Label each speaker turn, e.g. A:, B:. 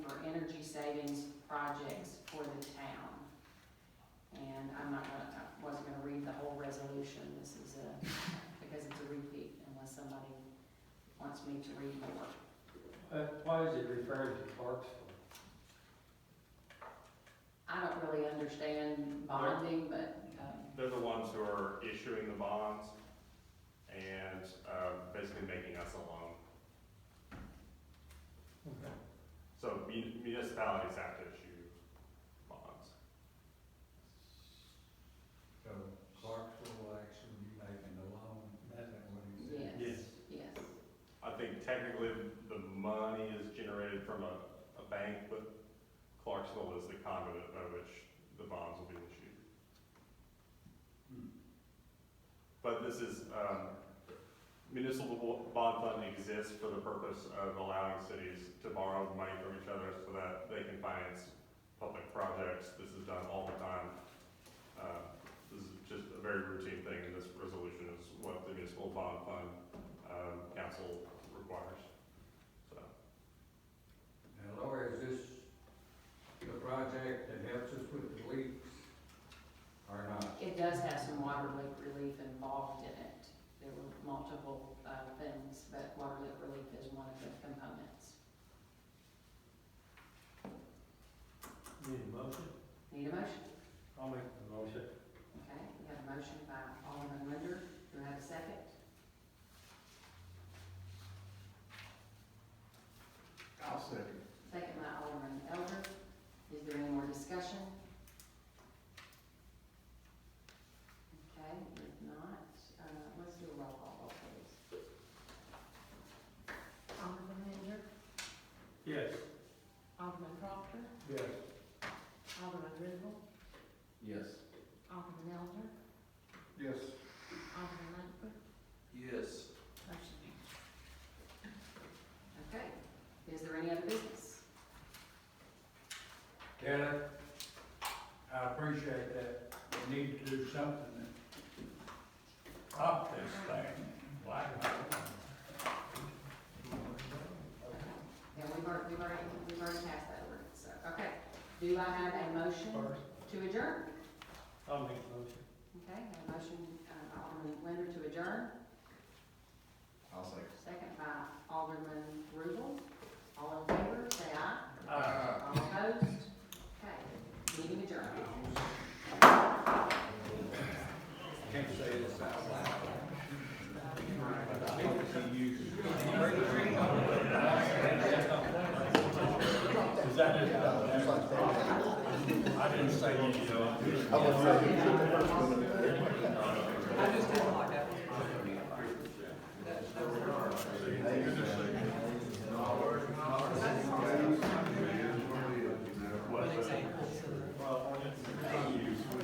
A: buildings projects for the town. And I'm not gonna, I wasn't gonna read the whole resolution, this is a, because it's a repeat, unless somebody wants me to read more.
B: Uh, Why is it referring to Clarksville?
A: I don't really understand bonding, but, um,
C: They're the ones who are issuing the bonds and uh, basically making us a loan. So mun- municipalities have to issue bonds.
D: So Clarksville will actually be making the loan, that's what he said.
A: yes, yes,
C: I think technically the money is generated from a, a bank, but Clarksville is the conduit by which the bonds will be issued.
D: Hmm.
C: But this is, um, municipal bo- bond fund exists for the purpose of allowing cities to borrow money from each other so that they can finance public projects. This is done all the time. Uh, this is just a very routine thing, and this resolution is what the municipal bond fund, um, council requires. So,
D: Now, Laura, is this the project that helps us with the leaks or not?
A: it does have some water leak relief involved in it. There were multiple, uh, things, but water leak relief is one of the components.
B: Need a motion?
A: Need a motion?
B: I'll make the motion.
A: Okay, we have a motion by Alderman Linder, do I have a second?
D: I'll second.
A: Second by Alderman Elder, is there any more discussion? Okay, if not, uh, let's do a roll call vote, please.
E: Alderman Mayor,
B: Yes.
E: Alderman Proctor,
B: Yes.
E: Alderman Griswold,
D: Yes.
E: Alderman Elder,
D: Yes.
E: Alderman Langford,
D: Yes.
E: motion carries.
A: Okay, is there any other business?
D: Kelly, I appreciate that. We need to do something to stop this thing. Black.
A: Yeah, we've already, we've already, we've already passed that ordinance, so, okay. Do I have a motion
B: First.
A: to adjourn?
B: I'll make the motion.
A: Okay, I have a motion, uh, Alderman Linder to adjourn,
D: I'll second.
A: second by Alderman Rubel, all in favor, say aye.
B: Aye.
A: All opposed? Okay, meeting adjourned.
D: Can't say this out loud. I didn't say you, you know.
F: I was,
D: I just didn't like that